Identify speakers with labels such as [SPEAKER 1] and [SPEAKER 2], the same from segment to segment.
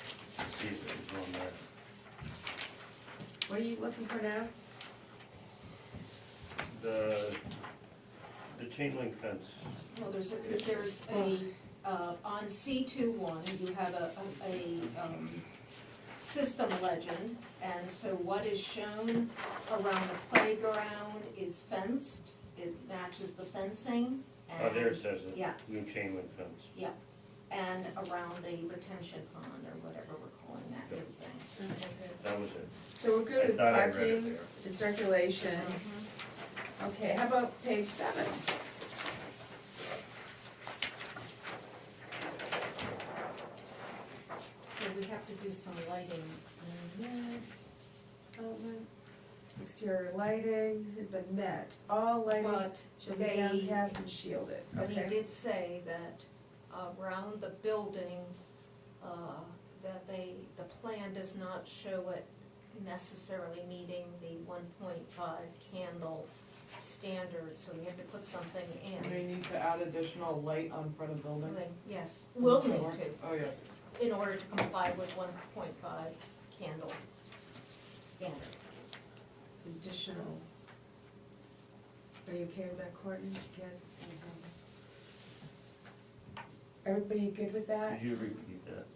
[SPEAKER 1] fees that he's doing there.
[SPEAKER 2] What are you looking for now?
[SPEAKER 1] The, the chain link fence,
[SPEAKER 3] Well, there's, a- there's a, uh, on C two one, you have a, a, a, um, system legend, and so what is shown around the playground is fenced, it matches the fencing,
[SPEAKER 1] oh, there it
[SPEAKER 3] and,
[SPEAKER 1] says it.
[SPEAKER 3] yeah.
[SPEAKER 1] New chain link fence.
[SPEAKER 3] and around a retention pond, or whatever we're calling that new thing.
[SPEAKER 1] That was it.
[SPEAKER 2] So we're good
[SPEAKER 1] I
[SPEAKER 2] with
[SPEAKER 1] thought I read it
[SPEAKER 2] parking
[SPEAKER 1] there.
[SPEAKER 2] and circulation.
[SPEAKER 3] Uh-huh.
[SPEAKER 2] Okay, how about page seven?
[SPEAKER 3] So we have to do some lighting.
[SPEAKER 2] Development, Exterior lighting has been met. All lighting
[SPEAKER 3] But
[SPEAKER 2] shall be
[SPEAKER 3] they-
[SPEAKER 2] downcast and shielded.
[SPEAKER 3] But he
[SPEAKER 2] Okay.
[SPEAKER 3] did say that around the building, uh, that they, the plan does not show it necessarily meeting the one point five candle standard, so we have to put something in.
[SPEAKER 4] They need to add additional light on front of building.
[SPEAKER 3] Like, Yes, will need
[SPEAKER 4] Sure.
[SPEAKER 3] to,
[SPEAKER 4] Oh, yeah.
[SPEAKER 3] in order to comply with one point five candle standard.
[SPEAKER 2] Additional. Are you okay with that, Courtney? Did you get- Everybody good with that?
[SPEAKER 1] Could you repeat that?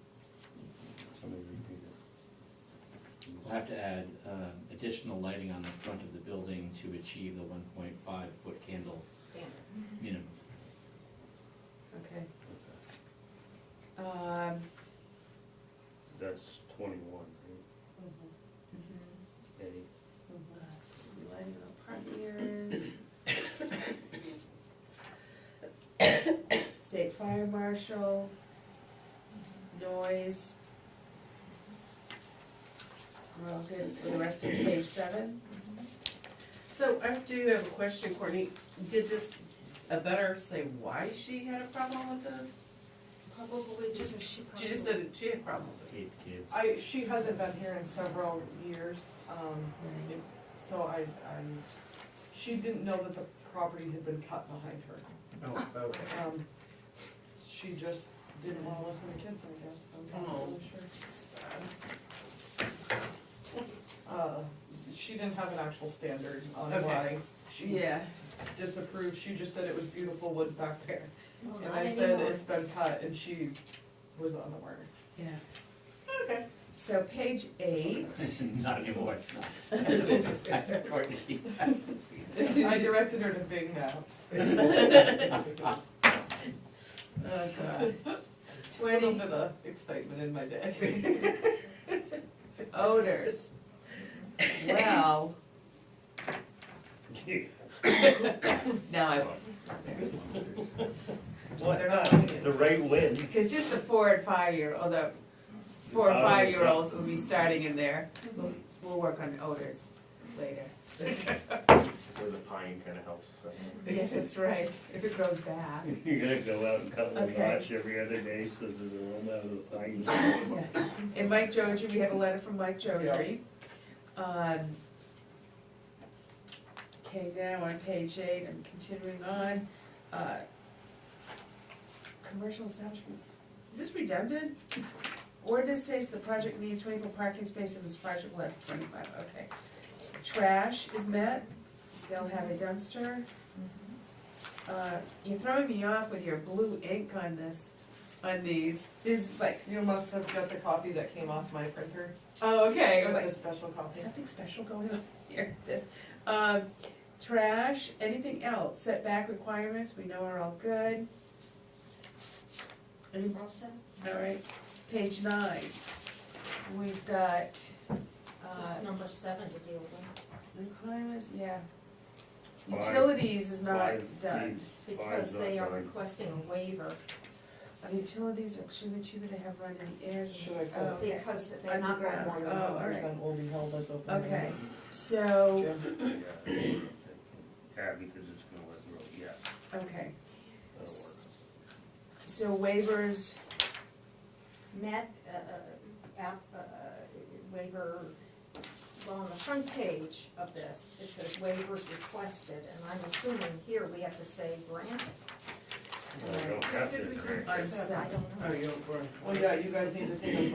[SPEAKER 1] Somebody repeat
[SPEAKER 5] Mm-hmm.
[SPEAKER 6] We'll have to add um, additional lighting on the front of the building to achieve the one point five foot candle
[SPEAKER 3] Standard.
[SPEAKER 6] minimum.
[SPEAKER 2] Okay.
[SPEAKER 1] it. Okay.
[SPEAKER 2] Um,
[SPEAKER 1] That's twenty-one, right?
[SPEAKER 2] mhm.
[SPEAKER 1] Eddie?
[SPEAKER 2] Lighting on parking areas. State fire marshal, noise. We're all good for the rest of page seven?
[SPEAKER 7] So I do have a question, Courtney. Did this, a better say why she had a problem with the,
[SPEAKER 3] Probably just, she
[SPEAKER 7] she just
[SPEAKER 3] probably,
[SPEAKER 7] said that she had a problem with it.
[SPEAKER 6] Eight kids.
[SPEAKER 4] I, she hasn't been here in several years, um,
[SPEAKER 2] Right.
[SPEAKER 4] it- so I, I'm, she didn't know that the property had been cut behind her.
[SPEAKER 7] Oh, okay.
[SPEAKER 4] Um, She just didn't wanna listen to kids, I guess, I'm not really
[SPEAKER 7] Oh.
[SPEAKER 4] sure. Uh, she didn't have an actual standard on
[SPEAKER 7] Okay.
[SPEAKER 4] why she disapproved, she just said it was beautiful woods back there.
[SPEAKER 3] well,
[SPEAKER 4] And
[SPEAKER 3] not
[SPEAKER 4] I said
[SPEAKER 3] anymore.
[SPEAKER 4] it's been cut, and she was unaware.
[SPEAKER 2] Yeah.
[SPEAKER 7] Okay.
[SPEAKER 2] So page eight,
[SPEAKER 6] Not anymore, it's not. That's what I- Courtney.
[SPEAKER 4] I directed her to Big Mouth.
[SPEAKER 7] Oh, God.
[SPEAKER 4] A little bit of excitement in my day.
[SPEAKER 2] odors. Well,
[SPEAKER 1] Gee,
[SPEAKER 2] no, I won't.
[SPEAKER 1] What,
[SPEAKER 7] They're
[SPEAKER 5] Mm-hmm.
[SPEAKER 7] not-
[SPEAKER 1] the right wind?
[SPEAKER 2] Because just the four and five year, or the four or five year olds will be starting in there. We'll, we'll work on odors later.
[SPEAKER 5] Where the pine kind of helps. so.
[SPEAKER 2] Yes, that's right, if it grows back.
[SPEAKER 1] You're gonna go out and cut the
[SPEAKER 2] Okay.
[SPEAKER 1] notch every other day, so there's a little out of the pine.
[SPEAKER 2] Yeah. And Mike Joji, we have a letter from Mike Joji. Um, Okay, now on page eight, I'm continuing on. uh, Commercial establishment, is this redundant? Ordinance states the project needs twenty-four parking spaces, this project will have twenty-five, okay. Trash is met, they'll have a dumpster. Uh, You're throwing me off with your blue ink on this, on these, this is like,
[SPEAKER 4] You must have got the copy that came off my printer,
[SPEAKER 2] oh, okay, I'm like,
[SPEAKER 4] the special copy.
[SPEAKER 2] Something special going on here, this, um, trash, anything else, setback requirements, we know are all good. Any-
[SPEAKER 3] Also,
[SPEAKER 2] All right, page nine, we've got, uh,
[SPEAKER 3] just number seven to deal with.
[SPEAKER 2] requirements, yeah.
[SPEAKER 1] Five.
[SPEAKER 2] Utilities is not
[SPEAKER 1] Five
[SPEAKER 2] done,
[SPEAKER 1] deeds, five
[SPEAKER 3] Because
[SPEAKER 1] not
[SPEAKER 3] they are
[SPEAKER 1] done.
[SPEAKER 3] requesting a waiver,
[SPEAKER 2] Uh, utilities are extremely cheaper to have run in the air.
[SPEAKER 4] Should I put-
[SPEAKER 2] Oh, okay.
[SPEAKER 3] because they're not going
[SPEAKER 2] Underground.
[SPEAKER 4] More than
[SPEAKER 2] Oh, all
[SPEAKER 4] one
[SPEAKER 2] right.
[SPEAKER 4] percent will be held as open.
[SPEAKER 2] Okay, so,
[SPEAKER 4] Jim,
[SPEAKER 1] Yeah, because it's gonna let the road, yeah.
[SPEAKER 2] okay,
[SPEAKER 1] that'll work.
[SPEAKER 2] so waivers,
[SPEAKER 3] met, uh, uh, app, uh, waiver, well, on the front page of this, it says waivers requested, and I'm assuming here we have to say granted.
[SPEAKER 1] Well, we don't have to, correct.
[SPEAKER 2] on
[SPEAKER 3] So I
[SPEAKER 2] seven.
[SPEAKER 3] don't know.
[SPEAKER 4] Well, yeah, you guys need to take a